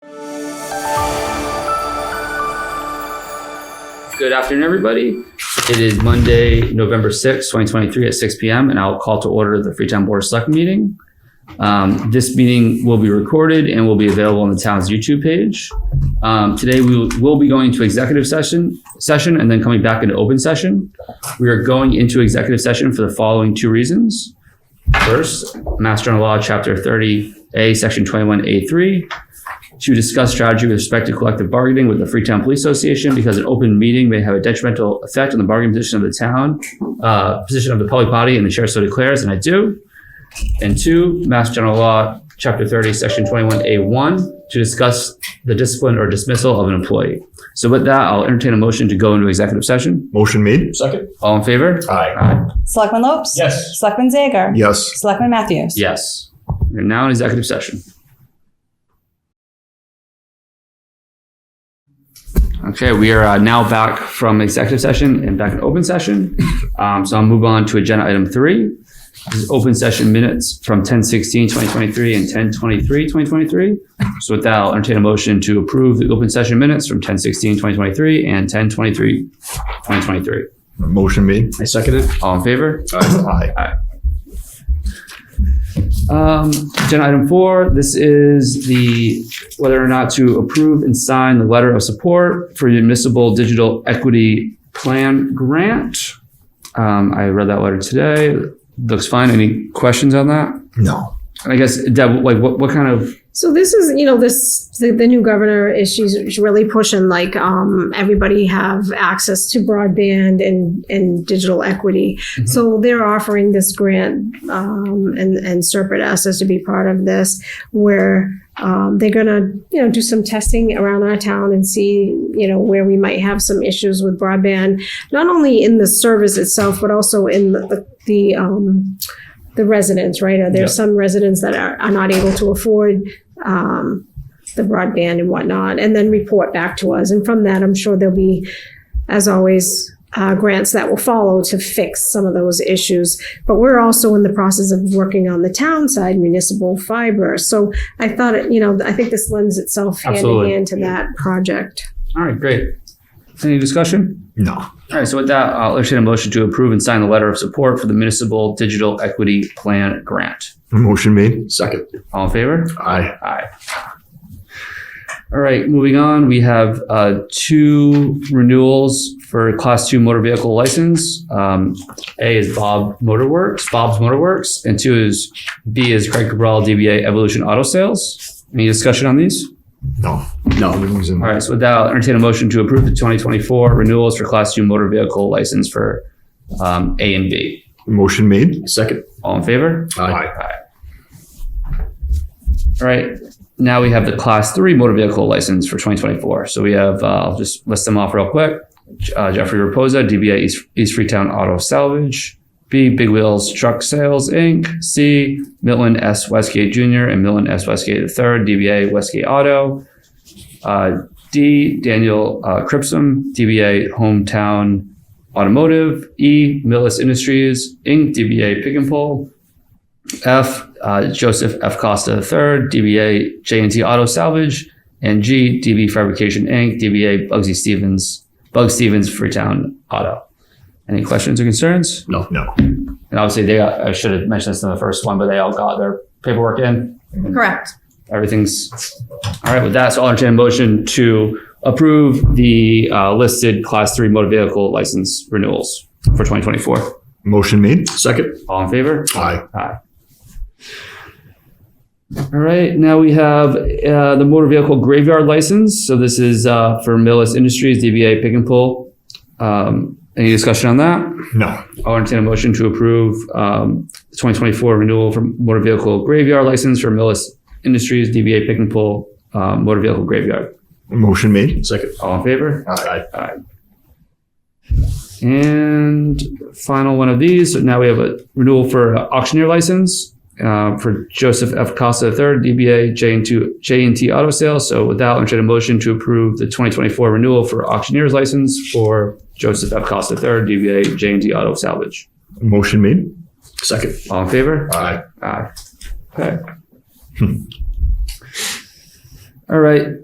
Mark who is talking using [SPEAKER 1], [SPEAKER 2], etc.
[SPEAKER 1] Good afternoon, everybody. It is Monday, November 6th, 2023 at 6 p.m. And I'll call to order the Freetown Board of Select meeting. Um, This meeting will be recorded and will be available on the town's YouTube page. Um, Today, we will- will be going to executive session, session and then coming back into open session. We are going into executive session for the following two reasons. First, Master General Law, Chapter 30A, Section 21A3, to discuss strategy with respect to collective bargaining with the Freetown Police Association because an open meeting may have a detrimental effect on the bargaining position of the town, uh, position of the public body, and the chair so declares, and I do. And two, Mass General Law, Chapter 30, Section 21A1, to discuss the discipline or dismissal of an employee. So with that, I'll entertain a motion to go into executive session.
[SPEAKER 2] Motion made.
[SPEAKER 3] Second?
[SPEAKER 1] All in favor?
[SPEAKER 2] Aye.
[SPEAKER 1] Aye.
[SPEAKER 4] Selectman Lopes?
[SPEAKER 3] Yes.
[SPEAKER 4] Selectman Zager?
[SPEAKER 2] Yes.
[SPEAKER 4] Selectman Matthews?
[SPEAKER 1] Yes. We're now in executive session. Okay, we are uh, now back from executive session and back in open session. Um, so I'll move on to agenda item three. This is open session minutes from 10 16, 2023 and 10 23, 2023. So with that, I'll entertain a motion to approve the open session minutes from 10 16, 2023 and 10 23, 2023.
[SPEAKER 2] Motion made.
[SPEAKER 3] I second it.
[SPEAKER 1] All in favor?
[SPEAKER 2] Aye.
[SPEAKER 1] Um, agenda item four, this is the, whether or not to approve and sign the letter of support for municipal digital equity plan grant. Um, I read that letter today. Looks fine. Any questions on that?
[SPEAKER 2] No.
[SPEAKER 1] And I guess, Deb, like what, what kind of,
[SPEAKER 5] So this is, you know, this the, the new governor is she's, she's really pushing like um, everybody have access to broadband and and digital equity. So they're offering this grant, um, and and Serpent asked us to be part of this, where um, they're gonna you know do some testing around our town and see you know where we might have some issues with broadband, not only in the service itself but also in the the, the um, the residents, right? Are there some residents that are, are not able to afford um, the broadband and whatnot, and then report back to us. And from that, I'm sure there'll be, as always, uh, grants that will follow to fix some of those issues. But we're also in the process of working on the town side, municipal fiber. So I thought, it, you know, I think this lends itself hand in
[SPEAKER 1] Absolutely.
[SPEAKER 5] hand to that project.
[SPEAKER 1] all right, great. Any discussion?
[SPEAKER 2] No.
[SPEAKER 1] All right, so with that, I'll entertain a motion to approve and sign the letter of support for the municipal digital equity plan grant.
[SPEAKER 2] Motion made.
[SPEAKER 3] Second.
[SPEAKER 1] All in favor?
[SPEAKER 2] Aye.
[SPEAKER 1] Aye. All right, moving on, we have uh, two renewals for Class 2 motor vehicle license. Um, A is Bob Motorworks, Bob's Motorworks, and two is, B is Craig Cabral, DBA Evolution Auto Sales. Any discussion on these?
[SPEAKER 2] No.
[SPEAKER 3] No.
[SPEAKER 2] Everything's in
[SPEAKER 1] All right, so with that, I'll entertain a motion to approve the 2024 renewals for Class 2 motor vehicle license for um, A and B.
[SPEAKER 2] Motion made.
[SPEAKER 3] Second?
[SPEAKER 1] All in favor?
[SPEAKER 3] Aye.
[SPEAKER 1] All right. Now we have the class three motor vehicle license for 2024. So we have, uh, I'll just list them off real quick. Uh, Jeffrey Raposa, DBA East, East Freetown Auto Salvage. B, Big Wheels Truck Sales Inc. C, Milton S. Westgate Jr. and Milton S. Westgate III, DBA Westgate Auto. Uh, D, Daniel uh, Cripsum, DBA Hometown Automotive. E, Millis Industries Inc., DBA Pick and Pull. F, uh, Joseph F. Costa III, DBA J&T Auto Salvage, and G, DB Fabrication Inc., DBA Bugsy Stevens, Bug Stevens Freetown Auto. Any questions or concerns?
[SPEAKER 2] No.
[SPEAKER 1] And obviously, they got, I should have mentioned this in the first one, but they all got their paperwork in.
[SPEAKER 5] Correct.
[SPEAKER 1] Everything's all right with that. So I'll entertain a motion to approve the uh, listed Class 3 motor vehicle license renewals for 2024.
[SPEAKER 2] Motion made.
[SPEAKER 3] Second?
[SPEAKER 1] All in favor?
[SPEAKER 2] Aye.
[SPEAKER 1] All right, now we have uh, the motor vehicle graveyard license. So this is uh, for Millis Industries, DBA Pick and Pull. Um, any discussion on that?
[SPEAKER 2] No.
[SPEAKER 1] I'll entertain a motion to approve um, the 2024 renewal for motor vehicle graveyard license for Millis Industries, DBA Pick and Pull uh, Motor Vehicle Graveyard.
[SPEAKER 2] Motion made.
[SPEAKER 3] Second?
[SPEAKER 1] All in favor?
[SPEAKER 2] Aye.
[SPEAKER 1] And final one of these. So now we have a renewal for uh, auctioneer license uh, for Joseph F. Costa III, DBA J&T, J&T Auto Sales. So with that, I'll entertain a motion to approve the 2024 renewal for auctioneer's license for Joseph F. Costa III, DBA J&T Auto Salvage.
[SPEAKER 2] Motion made.
[SPEAKER 3] Second?
[SPEAKER 1] All in favor?
[SPEAKER 3] Aye.
[SPEAKER 1] Aye. Okay. All right.